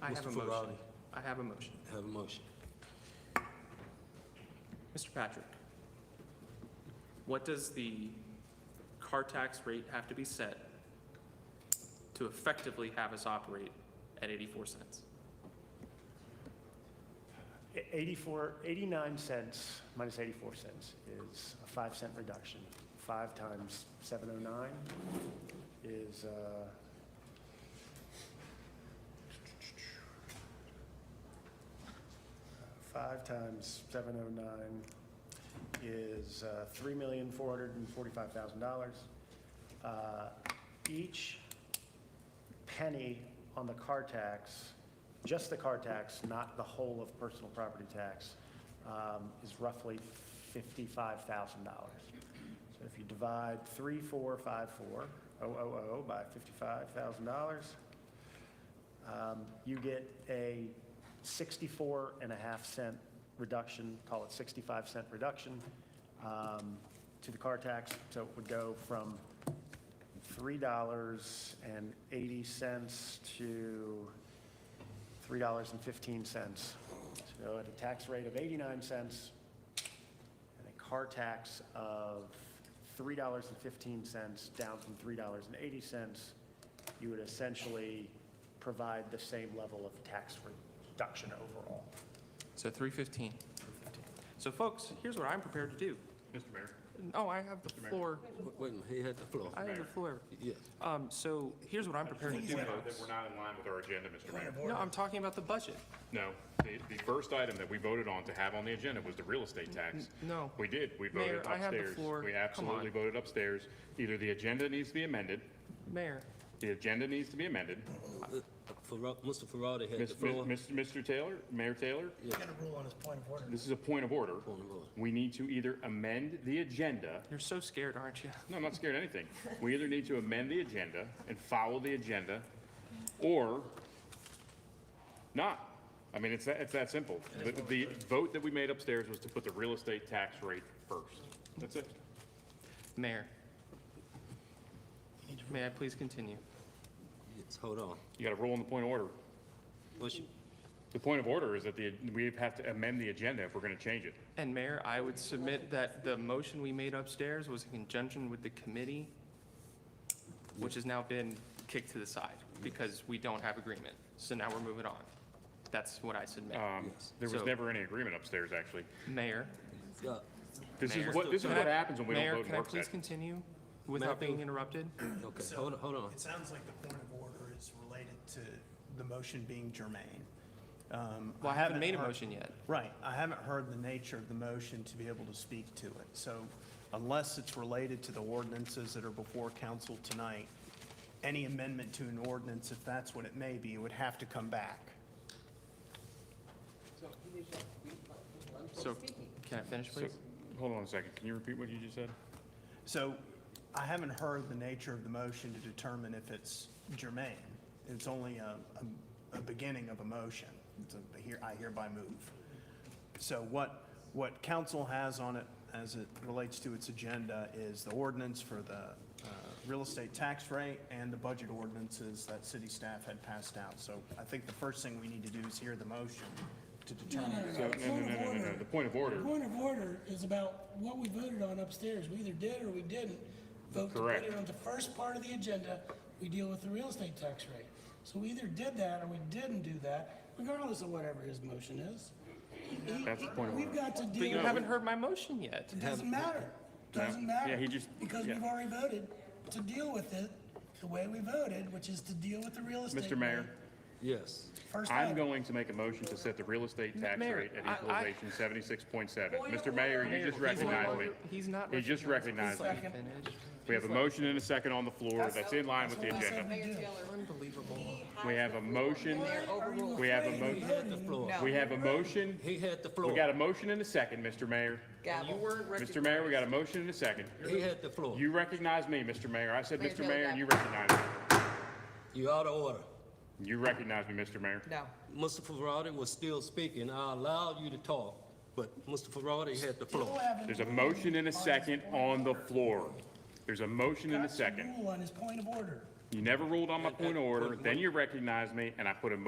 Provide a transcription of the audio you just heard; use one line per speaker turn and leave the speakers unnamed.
I have a
Mr.
motion.
Ferrari.
I have a motion.
Have a motion.
Mr. Patrick, what does the car tax rate have to be set to effectively have us operate at 84 cents?
84, 89 cents minus 84 cents is a 5 cent reduction. 5 times 709 is, uh, five times 709 is uh, $3,445,000. Uh, Each penny on the car tax, just the car tax, not the whole of personal property tax, um, is roughly $55,000. So if you divide 3454000 oh, by $55,000, um, you get a 64 and a half cent reduction, call it 65 cent reduction um, to the car tax. So it would go from $3.80 to $3.15. So at a tax rate of 89 cents and a car tax of $3.15 down from $3.80, you would essentially provide the same level of tax reduction overall.
So 315. So folks, here's what I'm prepared to do.
Mr. Mayor,
No, I have the
Mayor.
floor.
Wait- Wait a minute, he had the floor.
I have the floor.
Yes.
Um, So here's what I'm prepared to do,
point out that
folks.
we're not in line with our agenda, Mr. Mayor.
No, I'm talking about the budget.
No, the, the first item that we voted on to have on the agenda was the real estate tax.
N- no.
We did, we
Mayor,
voted upstairs.
I have the floor.
We
Come on.
absolutely voted upstairs. Either the agenda needs to be amended,
Mayor,
the agenda needs to be amended.
Ferra- Mr. Ferrari had
Mis-
the
mis-
floor.
Mr. Mr. Taylor, Mayor Taylor,
He's got a rule on his point of order.
this is a point of order.
Point of order.
We need to either amend the agenda
you're so scared, aren't you?
No, I'm not scared of anything. We either need to amend the agenda and follow the agenda, or not. I mean, it's that, it's that simple. The, the vote that we made upstairs was to put the real estate tax rate first. That's it.
Mayor, may I please continue?
Yes, Hold on.
You gotta roll on the point of order.
What's your-
The point of order is that the, we have to amend the agenda if we're gonna change it.
And Mayor, I would submit that the motion we made upstairs was in conjunction with the committee, which has now been kicked to the side because we don't have agreement. So now we're moving on. That's what I submit.
Um, there was
So-
never any agreement upstairs, actually.
Mayor,
yeah.
This
Mayor.
is what, this is
can
what
I-
happens when we don't
Mayor,
vote in
can I
work
please
session.
continue without
Mayor,
being
please-
interrupted?
Okay,
So,
hold on, hold on.
It sounds like the point of order is related to the motion being germane. Um,
Well, I haven't made a
heard-
motion yet.
Right, I haven't heard the nature of the motion to be able to speak to it. So unless it's related to the ordinances that are before council tonight, any amendment to an ordinance, if that's what it may be, would have to come back.
So can I finish,
So,
please?
hold on a second. Can you repeat what you just said?
So I haven't heard the nature of the motion to determine if it's germane. It's only a, a, a beginning of a motion. It's a here, I hereby move. So what, what council has on it as it relates to its agenda is the ordinance for the uh, real estate tax rate and the budget ordinances that city staff had passed out. So I think the first thing we need to do is hear the motion to determine.
So, no, no, no, no, no, no. The point of order.
The point of order is about what we voted on upstairs. We either did or we didn't vote to put
Correct.
it on the first part of the agenda. We deal with the real estate tax rate. So we either did that or we didn't do that, regardless of whatever his motion is. He-
That's the point of
We've
order.
got to
But you
deal,
haven't heard my motion yet.
it doesn't matter, doesn't matter.
Yeah, he just-
Because
yeah.
we've already voted to deal with it the way we voted, which is to deal with the real estate.
Mr. Mayor.
rate
Yes.
First
I'm
item.
going to make a motion to set the real estate tax
Mayor,
rate at
I- I-
equalization seventy-six point seven. Mr. Mayor, you just
Mayor, he's not-
recognized me.
He's not.
He just recognized me.
Please let me finish.
We have a motion and a second on the floor that's in line with the agenda.
Mayor Taylor,
Unbelievable.
he has
We have
the
a
floor.
motion,
Are you
we have a
afraid we
motion.
voted?
The floor.
No.
we have a motion,
He had the floor.
we got a motion and a second, Mr. Mayor.
Gavel.
You weren't recognized.
Mr. Mayor, we got a motion and a second.
He had the floor.
You recognize me, Mr. Mayor. I said,
Mayor
Mr.
Taylor,
Mayor, and
gavel.
you recognize me.
You out of order.
You recognize me, Mr. Mayor.
No,
Mr. Ferrari was still speaking. I allowed you to talk, but Mr. Ferrari had the
Still
floor.
haven't
There's a
voted
motion and a
on his
second
point of
on the
order.
floor. There's a motion and a
Got to
second.
rule on his point of order.
You never ruled on my
At- at
point of order,
point of
then
order.
you recognized me, and I put a